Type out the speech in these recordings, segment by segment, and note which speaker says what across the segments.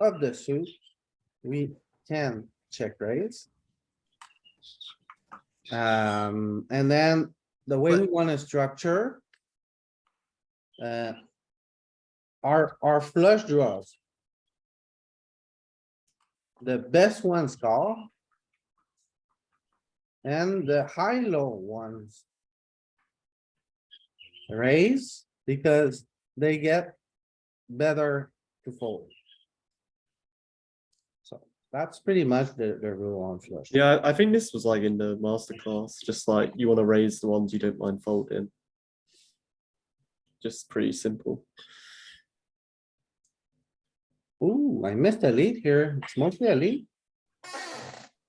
Speaker 1: of the suit, we can check raise. Um, and then the way we wanna structure. Uh. Our, our flush draws. The best ones call. And the high-low ones. Raise, because they get better to fold. So that's pretty much the, the rule on flush.
Speaker 2: Yeah, I I think this was like in the masterclass, just like you want to raise the ones you don't mind folding. Just pretty simple.
Speaker 1: Ooh, I missed a lead here. It's mostly a lead.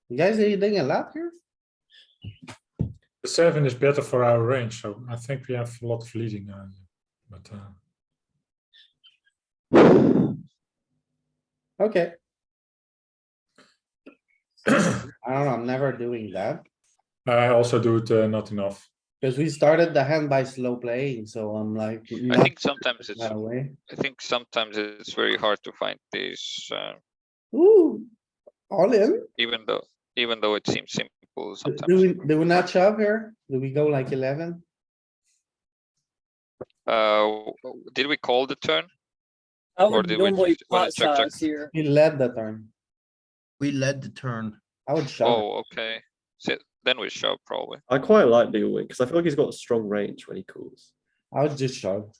Speaker 1: You guys are eating a lot here?
Speaker 3: The seven is better for our range, so I think we have a lot of leading. Uh, but uh,
Speaker 1: Okay. I don't know, I'm never doing that,
Speaker 3: uh, I also do it uh, not enough.
Speaker 1: because we started the hand by slow playing, so I'm like.
Speaker 4: I
Speaker 1: not
Speaker 4: think sometimes it's,
Speaker 1: that
Speaker 4: I
Speaker 1: way.
Speaker 4: think sometimes it's very hard to find these, uh,
Speaker 1: Ooh, all in?
Speaker 4: even though, even though it seems simple
Speaker 1: Do- Do we,
Speaker 4: sometimes.
Speaker 1: do we not shove here? Do we go like eleven?
Speaker 4: Uh, w- w- did we call the turn?
Speaker 5: I
Speaker 4: Or
Speaker 5: would
Speaker 4: do we
Speaker 5: normally
Speaker 4: just wanna
Speaker 5: pot
Speaker 4: check, check?
Speaker 5: size here.
Speaker 1: He led the turn.
Speaker 6: We led the turn.
Speaker 1: I would shove.
Speaker 4: Oh, okay. So then we shove probably.
Speaker 2: I quite like Neil Wing because I feel like he's got a strong range when he calls.
Speaker 1: I would just shove.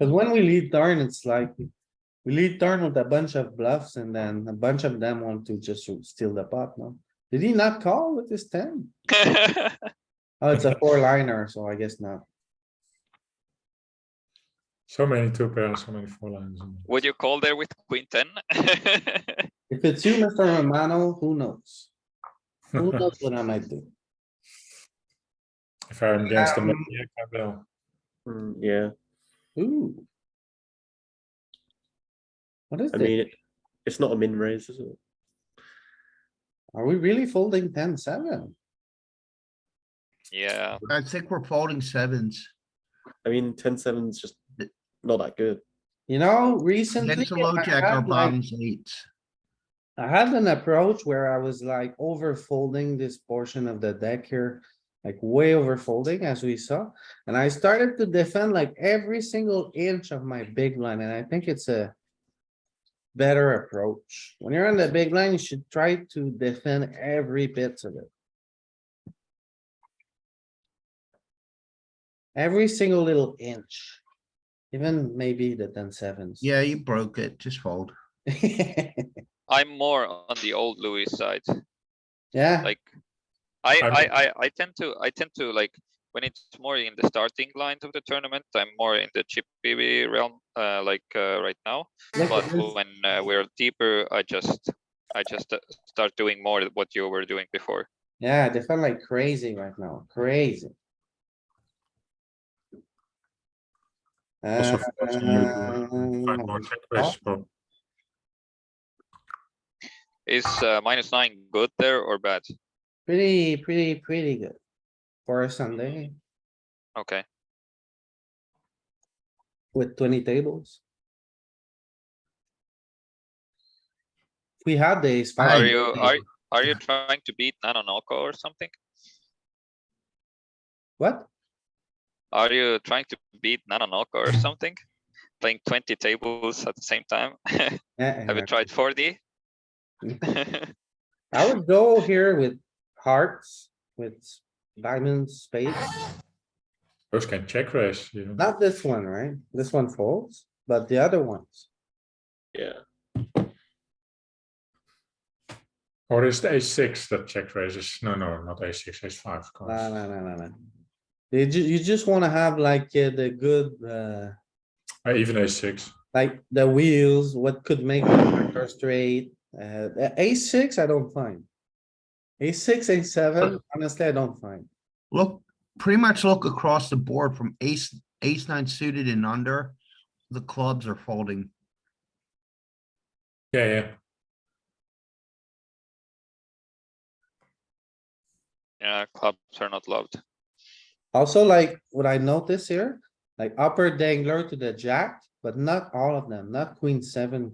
Speaker 1: Cause when we lead turn, it's like, we lead turn with a bunch of bluffs and then a bunch of them want to just steal the pot, no? Did he not call with his ten? Oh, it's a four liner, so I guess not.
Speaker 3: So many two pairs, so many four lines. and-
Speaker 4: Would you call there with queen ten?
Speaker 1: If it's you, Mr. Romano, who knows? Who knows what I might do?
Speaker 3: if I'm against
Speaker 1: Um,
Speaker 3: the maniac, I uh, will.
Speaker 2: Mm, yeah,
Speaker 1: Ooh. What is
Speaker 2: I
Speaker 1: this?
Speaker 2: mean, it, it's not a min raise, is it?
Speaker 1: Are we really folding ten seven?
Speaker 4: Yeah,
Speaker 6: I think we're folding sevens.
Speaker 2: I mean, 10 7's just not that good.
Speaker 1: You know, recently.
Speaker 6: Next to low
Speaker 1: I
Speaker 6: jack are
Speaker 1: had, like,
Speaker 6: bottoms eights.
Speaker 1: I had an approach where I was like over folding this portion of the deck here, like way over folding as we saw. And I started to defend like every single inch of my big line, and I think it's a better approach. When you're on the big line, you should try to defend every bit of it. Every single little inch, even maybe the ten sevens.
Speaker 6: Yeah, you broke it. Just fold.
Speaker 4: I'm more on the old Louis side,
Speaker 1: Yeah.
Speaker 4: like. I,
Speaker 3: I'm-
Speaker 4: I, I, I tend to, I tend to like, when it's more in the starting lines of the tournament, I'm more in the chip BB realm, uh, like, uh, right now.
Speaker 1: look
Speaker 4: But
Speaker 1: at this.
Speaker 4: when uh, we're deeper, I just, I just uh, start doing more of what you were doing before.
Speaker 1: Yeah, they felt like crazy right now, crazy.
Speaker 3: Also, for us, you
Speaker 1: Um,
Speaker 3: do find more check raises, but
Speaker 4: Is uh, minus nine good there or bad?
Speaker 1: Pretty, pretty, pretty good for a Sunday
Speaker 4: Okay,
Speaker 1: with twenty tables. We had the ace
Speaker 6: I-
Speaker 4: are
Speaker 1: five,
Speaker 4: you, are, are you trying to beat Nanonoko or something?
Speaker 1: what?
Speaker 4: Are you trying to beat Nanonoko or something? Playing twenty tables at the same time? Have
Speaker 1: Uh-uh.
Speaker 4: you tried forty?
Speaker 1: I would go here with hearts, with diamonds, spades,
Speaker 3: those can check raise. You know.
Speaker 1: not this one, right? This one folds, but the other ones.
Speaker 2: Yeah,
Speaker 3: Or is the a6 that check raises? No, no, not a6, a5. Of course.
Speaker 1: No, no, no, no, no. You ju- you just wanna have like uh, the good, uh,
Speaker 3: Uh, even a6.
Speaker 1: like the wheels, what could make the tractor straight. Uh, a six, I don't find. A six, a seven, honestly, I don't find.
Speaker 6: Look, pretty much look across the board from ace, ace nine suited and under. The clubs are folding.
Speaker 3: Yeah, yeah.
Speaker 4: Yeah, clubs are not loved.
Speaker 1: Also, like, what I notice here, like upper dangler to the jack, but not all of them, not queen seven,